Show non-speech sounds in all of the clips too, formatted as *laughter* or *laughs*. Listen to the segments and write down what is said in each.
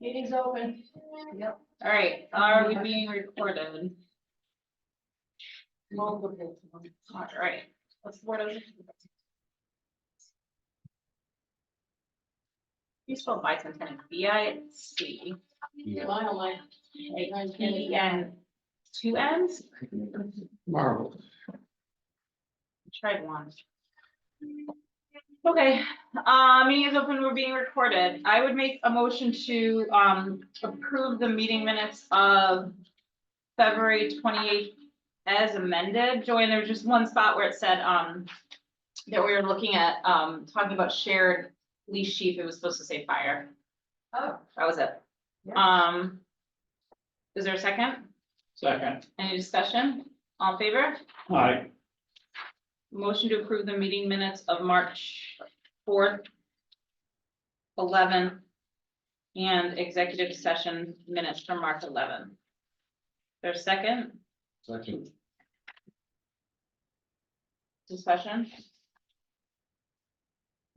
Meeting's open. Yep. All right, are we being recorded? Multiple. *laughs* All right, what's the word of? You spell bicentennial, B I C, Yeah, Mile line. A P N, two N's, Marvel. tried one. Okay, uh, meeting is open, we're being recorded. I would make a motion to, um, approve the meeting minutes of February twenty-eighth as amended. Joanne, there was just one spot where it said, um, that we were looking at, um, talking about shared leash chief, it was supposed to say fire. Oh, That was it. Um, is there a second? Second. Any discussion? All in favor? Aye. Motion to approve the meeting minutes of March fourth, eleven, and executive session minutes from March eleven. There's second Second. discussion?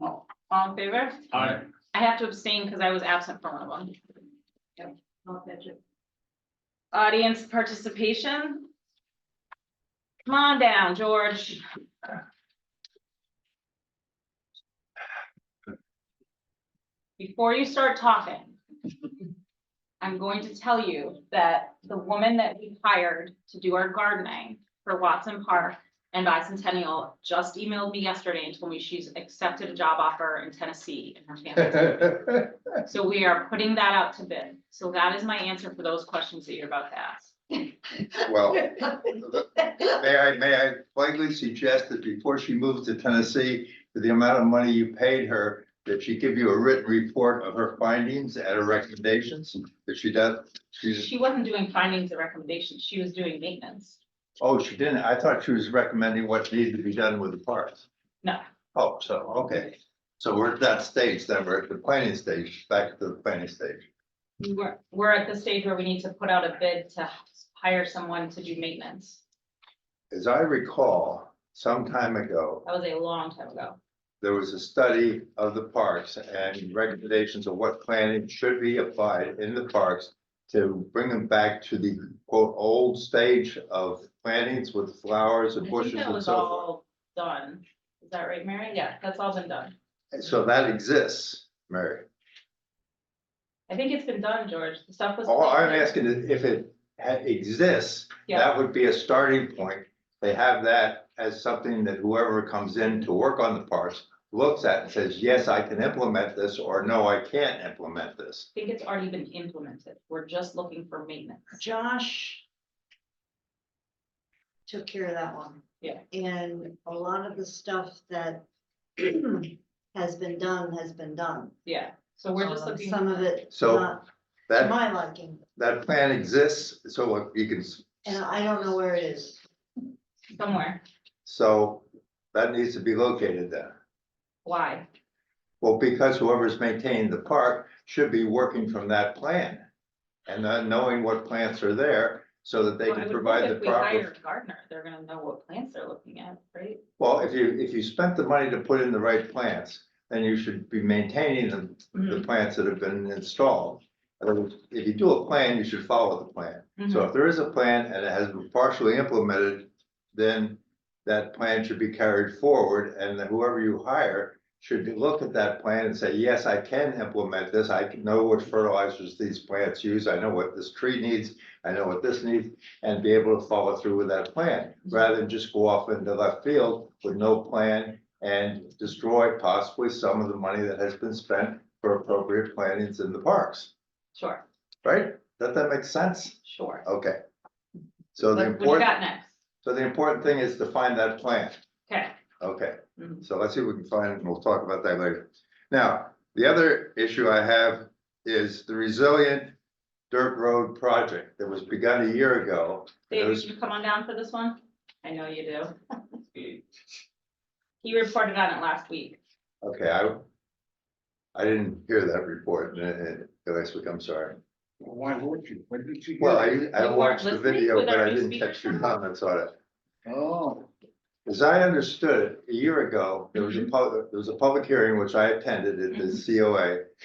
All all in favor? Aye. I have to abstain because I was absent from one of them. I'll catch it. Audience participation? Come on down, George. Before you start talking, I'm going to tell you that the woman that we hired to do our gardening for Watson Park and Bicentennial just emailed me yesterday and told me she's accepted a job offer in Tennessee and her *laughs* family. So we are putting that out to bid. So that is my answer for those questions that you're about to ask. Well, may I, may I politely suggest that before she moves to Tennessee, for the amount of money you paid her, that she give you a written report of her findings and her recommendations, that she does, she's, She wasn't doing findings and recommendations. She was doing maintenance. oh, she didn't, I thought she was recommending what needed to be done with the parks. No. Oh, so, okay, so we're at that stage, then we're at the planning stage, back to the planning stage. We were, we're at the stage where we need to put out a bid to hire someone to do maintenance. As I recall, some time ago, That was a long time ago. there was a study of the parks and recommendations of what planning should be applied in the parks to bring them back to the quote, old stage of plantings with flowers I and think bushes that and was so forth. all done. Is that right, Mary? Yeah, that's all been done. And So that exists, Mary. I think it's been done, George. The stuff was. All Oh, I'm asking is if it ha- exists, Yeah, that would be a starting point. They have that as something that whoever comes in to work on the parks looks at and says, yes, I can implement this, or no, I can't implement this. I think it's already been implemented. We're just looking for maintenance. Josh took care of that one. Yeah. And a lot of the stuff that *clears throat* has been done, has been done. Yeah, so we're just Um, looking. Some of it So not to That my liking, that plan exists, so you can, and I don't know where it is. Somewhere. so that needs to be located there. Why? Well, because whoever's maintaining the park should be working from that plan. And then knowing what plants are there so that they Well, I can would provide think the if we hire proper. a Gardener, they're gonna know what plants they're looking at, right? Well, if you, if you spent the money to put in the right plants, then you should be maintaining the, Hmm. the plants that have been installed. In other words, If you do a plan, you should follow the plan. Mm-hmm. So if there is a plan and it has been partially implemented, then that plan should be carried forward and then whoever you hire should look at that plan and say, yes, I can implement this. I can know what fertilizers these plants use. I know what this tree needs. I know what this needs and be able to follow through with that plan rather than just go off into left field with no plan and destroy possibly some of the money that has been spent for appropriate plantings in the parks, Sure, right? Does that make sense? sure. Okay. So the What what do you important, got next? so the important thing is to find that plan. Okay, Okay, Mhm. so let's see if we can find it and we'll talk about that later. Now, the other issue I have is the resilient dirt road project that was begun a year ago. David, There's- you come on down for this one? I know you do. He reported on it last week. Okay, I, I didn't hear that report uh, uh, last week, I'm sorry. Why would you? What did you? Well, get? I, I weren't watched the listening video, with but our I new didn't catch your speaker? comments on it. Oh, As I Mm-hmm. understood, it, a year ago, there was a, pub- there was a public hearing which I attended at the COA.